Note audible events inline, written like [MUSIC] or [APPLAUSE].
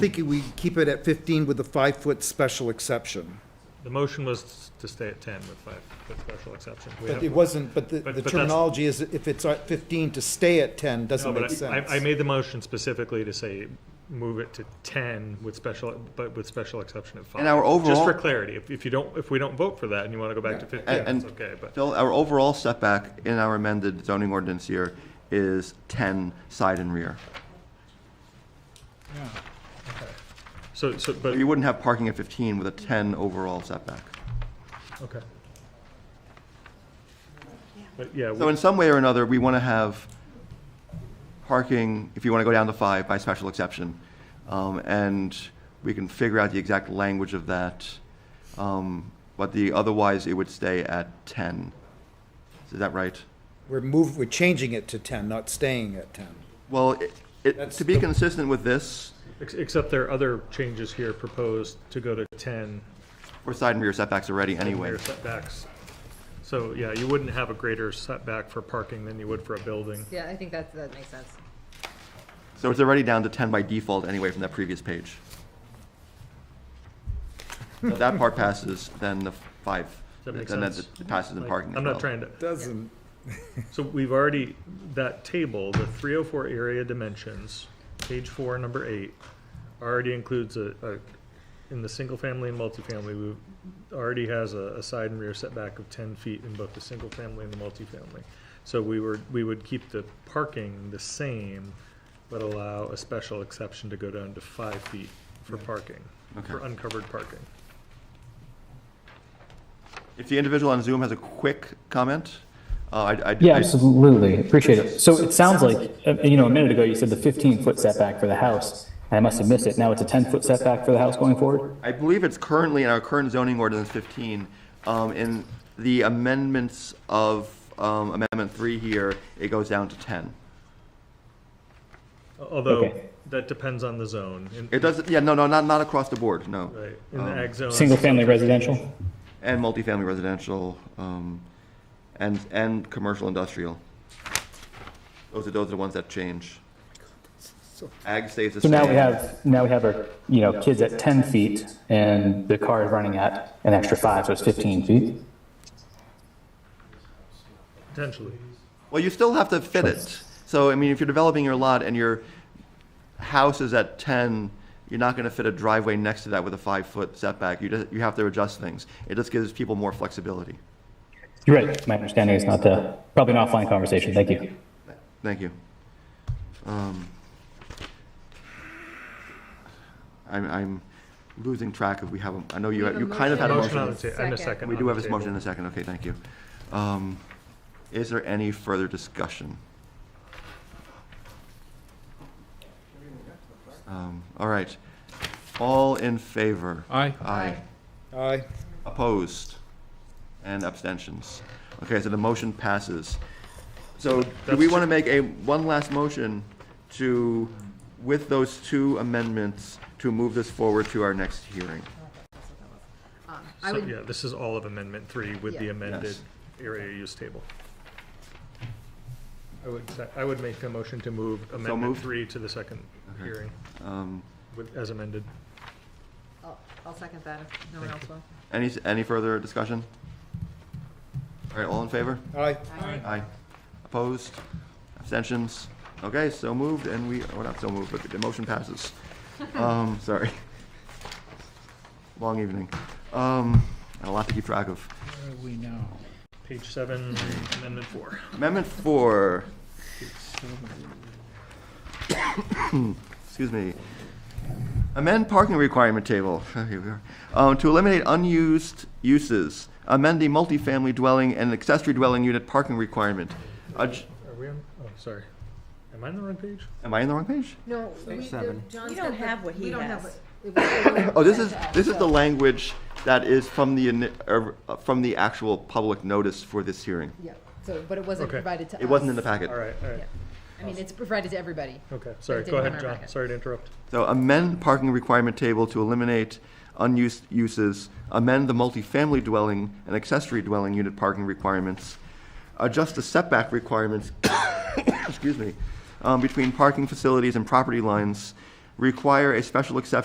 thinking we keep it at 15 with the five-foot special exception. The motion was to stay at ten with five, with special exception. We But have- it wasn't, but the- But- the but that's- terminology is if it's at 15 to stay at 10 No, doesn't but make I- sense. I, I made the motion specifically to say, move it to ten with special, but with special exception of five. And our Just overall- for clarity, if, if you don't, if we don't vote for that and you want to go back to fifteen, And- that's and- okay, but Phil, our overall setback in our amended zoning ordinance here is 10 side and rear. so, so, but, You wouldn't have parking at 15 with a 10 overall setback. okay. But yeah, So we- in some way or another, we want to have parking, if you want to go down to five, by special exception. Um, And we can figure out the exact language of that. Um, But the, otherwise, it would stay at 10. Is that right? We're move, we're changing it to 10, not staying at 10. Well, it- it, That's to be the- consistent with this, ex- except there are other changes here proposed to go to ten we're side and rear setbacks already anyway. rear setbacks. So, yeah, you wouldn't have a greater setback for parking than you would for a building. Yeah, I think that, that makes sense. So it's already down to 10 by default anyway from that previous page. If that part passes, then the five, Does that make then sense? it passes in Like, parking as I'm well. not trying to, Doesn't. So we've already, that table, the three oh four area dimensions, page four, number eight, already includes a, a, in the single family and multifamily, we already has a, a side and rear setback of ten feet in both the single family and the multifamily. So we were, we would keep the parking the same, but allow a special exception to go down to five feet for parking, for Okay. uncovered parking. If the individual on Zoom has a quick comment, uh, I, I. Yeah, I- absolutely. Appreciate it. So it sounds like, uh, you know, a minute ago, you said the 15-foot setback for the house. and I must have missed it. Now it's a 10-foot setback for the house going forward? I believe it's currently in our current zoning ordinance 15. um, In the amendments of um, Amendment 3 here, it goes down to 10. Although, Okay. that depends on the zone. In- It doesn't, yeah, no, no, not, not across the board, no. Right, in the Um, ag zone. Single-family residential? And multifamily residential, um, and, and commercial industrial. Those are, those are the ones that change. Ag stays the So same. now we have, now we have our, you know, kids at 10 feet and the car is running at an extra five, so it's 15 feet. Potentially. Well, you still have to fit it. So, I mean, if you're developing your lot and your house is at ten, you're not gonna fit a driveway next to that with a five-foot setback. You just, you have to adjust things. It just gives people more flexibility. You're right. My understanding is not the, probably an offline conversation. Thank you. Thank you. Um, I'm, I'm losing track of, we have, a- I know you, We have a you kind of had a Motion on the motion. table, and a Second. second. We on do the have this motion table. in a second, okay, thank you. Um, Is there any further discussion? Um, All right, all in favor? Aye. Aye. Aye. Opposed? And abstentions. Okay, so the motion passes. So do That's we ju- want to make a, one last motion to, with those two amendments, to move this forward to our next hearing? Um, I So, would, yeah, this is all of amendment three with the Yeah. amended Yes. area use table. I would, se- I would make a motion to move amendment moved. three to the second hearing Um, with, as amended. I'll, I'll second that if no one else will. Any, any further discussion? All right, all in favor? Aye. Aye. Opposed? Abstentions? Okay, so moved, and we, well, not so moved, but the motion passes. Um, sorry. Long evening. Um, and a lot to keep track of. Page seven, amendment four. Amendment four. [COUGHS] Excuse me. Amend parking requirement table, [LAUGHS] here we are, um, to eliminate unused uses. Amend the multifamily dwelling and accessory dwelling unit parking requirement. Uh, j- Are we on, oh, sorry. Am I on the wrong page? Am I in the wrong page? No, we, Seven. John's We don't have what he has. [LAUGHS] Oh, this is, this is the language that is from the, ini- er, uh, from the actual public notice for this hearing. Yeah, so, but it wasn't Okay. provided to us. It wasn't in the packet. All right, all right. Yeah. I mean, it's provided to everybody. Okay, sorry. didn't Go come ahead, in our John. packet. Sorry to interrupt. So amend parking requirement table to eliminate unused uses, amend the multifamily dwelling and accessory dwelling unit parking requirements, adjust the setback [COUGHS] requirements, excuse me, um, between parking facilities and property lines, require a special exception